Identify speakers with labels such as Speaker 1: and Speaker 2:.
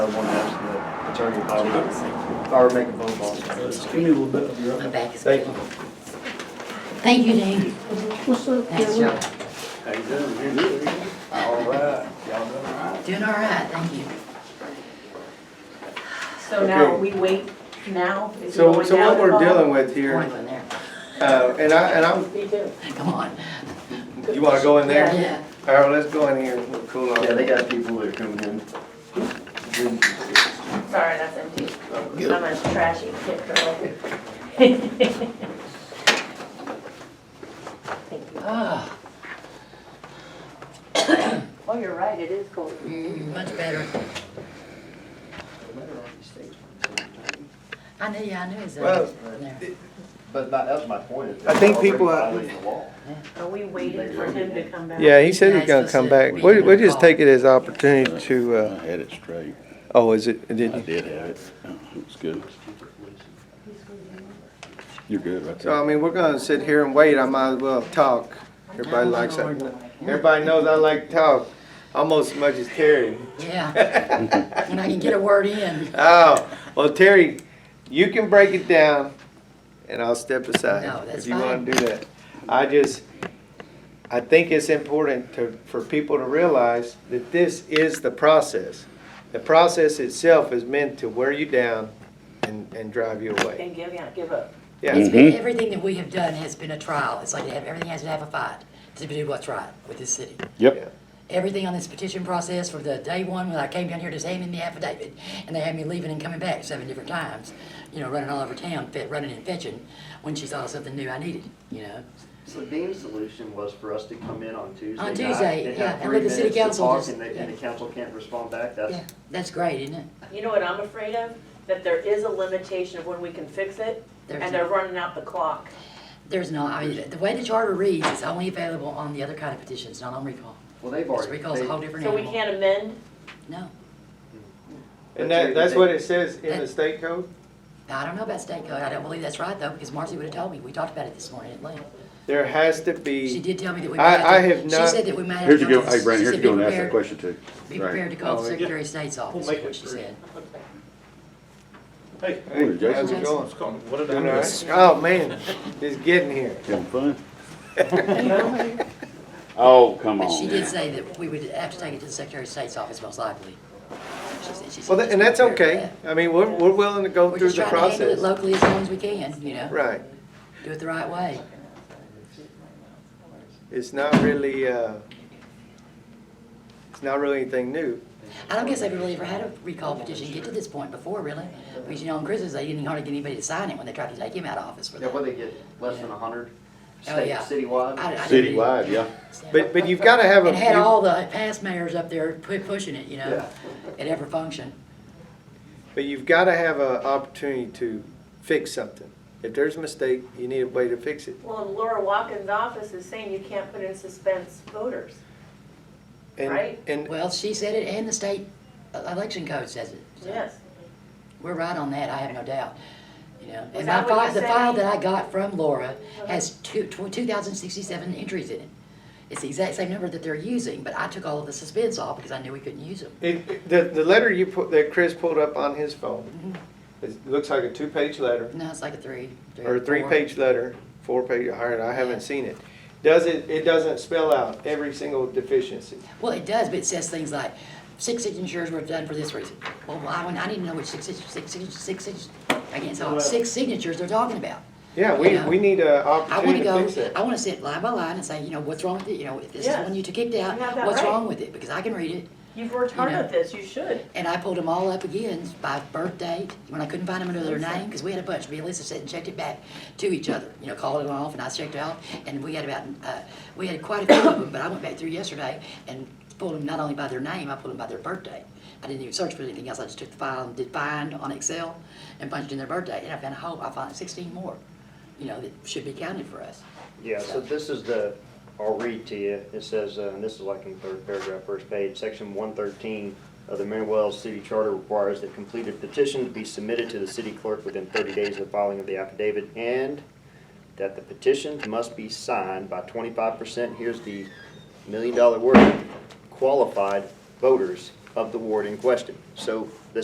Speaker 1: attorney probably, or make a phone call.
Speaker 2: Give me a little bit of your.
Speaker 3: My back is.
Speaker 1: Thank you.
Speaker 3: Thank you, Dave.
Speaker 2: What's up?
Speaker 3: Thanks, y'all.
Speaker 2: How you doing? You good?
Speaker 1: All right, y'all done all right?
Speaker 3: Doing all right, thank you.
Speaker 4: So now,
Speaker 1: Okay.
Speaker 4: we wait now? Is it
Speaker 1: So,
Speaker 4: going
Speaker 1: so
Speaker 4: down
Speaker 1: what
Speaker 4: the
Speaker 1: we're
Speaker 4: hall?
Speaker 1: dealing with
Speaker 3: Going
Speaker 1: here,
Speaker 3: in there.
Speaker 1: uh, and I, and I'm,
Speaker 4: Me too.
Speaker 3: Come on.
Speaker 1: you wanna go in there?
Speaker 3: Yeah.
Speaker 1: All right, let's go in here, we'll cool off.
Speaker 5: Yeah, they got people that are coming in.
Speaker 4: Sorry, that's empty.
Speaker 5: Good.
Speaker 4: I'm a trashy kid girl.
Speaker 3: Ah,
Speaker 4: Oh, you're right, it is cold.
Speaker 3: much better. I knew, yeah, I knew it was
Speaker 1: Well,
Speaker 3: in there.
Speaker 5: But that that was my point. is
Speaker 1: I think people-
Speaker 5: they're already violating the law.
Speaker 4: Are we waiting for him to come back?
Speaker 1: Yeah, he said
Speaker 3: Yeah,
Speaker 1: he's
Speaker 3: it's
Speaker 1: gonna
Speaker 3: supposed
Speaker 1: come
Speaker 3: to-
Speaker 1: back.
Speaker 3: we
Speaker 1: We,
Speaker 3: can
Speaker 1: we just
Speaker 3: call.
Speaker 1: take it as opportunity to,
Speaker 6: I
Speaker 1: uh,
Speaker 6: had it straight.
Speaker 1: oh, is it, did
Speaker 6: I
Speaker 1: you?
Speaker 6: did have it. Oh, It was good. You're good, right
Speaker 1: So,
Speaker 6: there.
Speaker 1: I mean, we're gonna sit here and wait, I might as well talk. Everybody likes that. Everybody knows I like to talk almost as much as Terry.
Speaker 3: Yeah. When I can get a word in.
Speaker 1: Oh, well, Terry, you can break it down and I'll step aside.
Speaker 3: No, that's
Speaker 1: If you wanna
Speaker 3: fine.
Speaker 1: do that. I just, I think it's important to, for people to realize that this is the process. The process itself is meant to wear you down and, and drive you away.
Speaker 4: And give, yeah, give up.
Speaker 1: Yeah,
Speaker 3: It's been, everything that we have done has been a trial. It's like, they have- everything has to have a fight to do what's right with this city.
Speaker 6: Yep.
Speaker 3: everything on this petition process from the day one when I came down here just handing the affidavit, and they had me leaving and coming back seven different times, you know, running all over town, fe- running and fetching when she saw something new I needed, you know.
Speaker 5: So Dean's solution was for us to come in on Tuesday.
Speaker 3: On
Speaker 5: night
Speaker 3: Tuesday,
Speaker 5: and have
Speaker 3: yeah, and
Speaker 5: three
Speaker 3: let the city
Speaker 5: minutes to
Speaker 3: council
Speaker 5: talk
Speaker 3: just-
Speaker 5: And the, and
Speaker 3: yeah.
Speaker 5: the council can't respond back,
Speaker 3: Yeah,
Speaker 5: that's,
Speaker 3: that's great, isn't it?
Speaker 4: You know what I'm afraid of? That there is a limitation of when we can fix it,
Speaker 3: There's
Speaker 4: and they're running out the clock.
Speaker 3: There's no, I mean, the way the charter reads, it's only available on the other kind of petitions, not on recall.
Speaker 5: well, they've
Speaker 3: Because
Speaker 5: already.
Speaker 3: recall's a
Speaker 5: they-
Speaker 3: whole different
Speaker 4: So we
Speaker 3: animal.
Speaker 4: can't amend?
Speaker 3: No,
Speaker 1: and that, that's what it says in the state code.
Speaker 3: I don't know about state code. I don't believe that's right though, because Marcy would've told me. We talked about it this morning at length.
Speaker 1: There has to be.
Speaker 3: She did tell me that we.
Speaker 1: I-
Speaker 3: might
Speaker 1: I
Speaker 3: to-
Speaker 1: have
Speaker 3: She
Speaker 1: not-
Speaker 3: said that we might have.
Speaker 6: Here's
Speaker 3: to
Speaker 6: your,
Speaker 3: go
Speaker 6: go-
Speaker 3: to-
Speaker 6: hey, Brandon,
Speaker 3: she
Speaker 6: here's
Speaker 3: said
Speaker 6: your
Speaker 3: be
Speaker 6: go and ask that
Speaker 3: prepared-
Speaker 6: question too.
Speaker 3: Be
Speaker 6: Right.
Speaker 3: prepared to call the
Speaker 1: Oh, yeah.
Speaker 3: Secretary of State's office,
Speaker 2: make
Speaker 3: is
Speaker 2: it
Speaker 3: what she
Speaker 2: free.
Speaker 3: said.
Speaker 2: Hey,
Speaker 1: Hey,
Speaker 6: Jason.
Speaker 1: how's it going?
Speaker 2: what's going, what did I
Speaker 1: Doing all
Speaker 2: miss?
Speaker 1: right? Oh, man, it's getting here.
Speaker 6: Having fun? Oh, come
Speaker 3: But she
Speaker 6: on.
Speaker 3: did say that we would have to take it to the Secretary of State's office most likely. She said- she said
Speaker 1: Well,
Speaker 3: she's
Speaker 1: and that's
Speaker 3: prepared for
Speaker 1: okay.
Speaker 3: that.
Speaker 1: I mean, we're, we're willing to go
Speaker 3: We're
Speaker 1: through
Speaker 3: just
Speaker 1: the
Speaker 3: trying to handle it
Speaker 1: process.
Speaker 3: locally as long as we can, you know,
Speaker 1: Right.
Speaker 3: do it the right way.
Speaker 1: It's not really, uh, it's not really anything new.
Speaker 3: I don't guess they've really ever had a recall petition get to this point before, really. Because, you know, on Christmas, they didn't hardly get anybody to sign it when they tried to take him out of office for
Speaker 5: Yeah,
Speaker 3: that.
Speaker 5: what they get, less than a hundred,
Speaker 3: Oh,
Speaker 5: state,
Speaker 3: yeah.
Speaker 5: citywide.
Speaker 3: I- I didn't really
Speaker 6: Citywide, yeah.
Speaker 3: understand.
Speaker 1: But, but you've gotta have a.
Speaker 3: And had all the past mayors up there pu- pushing it, you know,
Speaker 5: Yeah.
Speaker 3: it ever functioned.
Speaker 1: But you've gotta have a opportunity to fix something. If there's a mistake, you need a way to fix it.
Speaker 4: Well, and Laura Watkins' office is saying you can't put in suspense voters.
Speaker 1: And-
Speaker 4: Right.
Speaker 1: And,
Speaker 3: Well, she said it, and the state election code says it. so.
Speaker 4: Yes.
Speaker 3: We're right on that, I have no doubt, you know.
Speaker 4: Was
Speaker 3: And my
Speaker 4: that what
Speaker 3: file,
Speaker 4: you
Speaker 3: the
Speaker 4: said?
Speaker 3: file that I got from Laura has two, two thousand sixty-seven entries in it. It's the exact same number that they're using, but I took all of the suspense off because I knew we couldn't use them.
Speaker 1: it, it- the, the letter you put, that Chris pulled up on his phone,
Speaker 3: Mm-hmm.
Speaker 1: it looks like a two-page letter,
Speaker 3: No, it's like a three. three
Speaker 1: or a
Speaker 3: four.
Speaker 1: three-page letter, four-page, all right, I haven't seen it. Does it, it doesn't spell out every single deficiency.
Speaker 3: Well, it does, but it says things like, six signatures were done for this reason. Well, I, I need to know which six, six, six, six, six, I can't tell, six signatures they're talking about.
Speaker 1: Yeah, we,
Speaker 3: Yeah.
Speaker 1: we need an
Speaker 3: I want
Speaker 1: opportunity
Speaker 3: to
Speaker 1: to
Speaker 3: go,
Speaker 1: fix it.
Speaker 3: I want to sit line by line and say, you know, what's wrong with it, you know, if this is
Speaker 4: Yes.
Speaker 3: one you two kicked out,
Speaker 4: You have that
Speaker 3: what's
Speaker 4: right.
Speaker 3: wrong with it? Because I can read it.
Speaker 4: You've worked hard
Speaker 3: You know.
Speaker 4: at this, you should.
Speaker 3: And I pulled them all up again by birth date, when I couldn't find them under their name, because we had a bunch. Me and Lisa sat and checked it back to each other, you know, called it off, and I checked it off, and we had about, uh, we had quite a few of them, but I went back through yesterday and pulled them not only by their name, I pulled them by their birthday. I didn't even search for anything else, I just took the file and did find on Excel and punched in their birthday, and I found a whole, I found sixteen more, you know, that should be counted for us.
Speaker 7: Yeah, so this is the, I'll read to you. It says, uh, and this is like in the third paragraph, first page, section one thirteen of the Maryville City Charter requires that completed petitions be submitted to the city clerk within thirty days of filing of the affidavit and that the petitions must be signed by twenty-five percent, here's the million dollar word, qualified voters of the ward in question. So the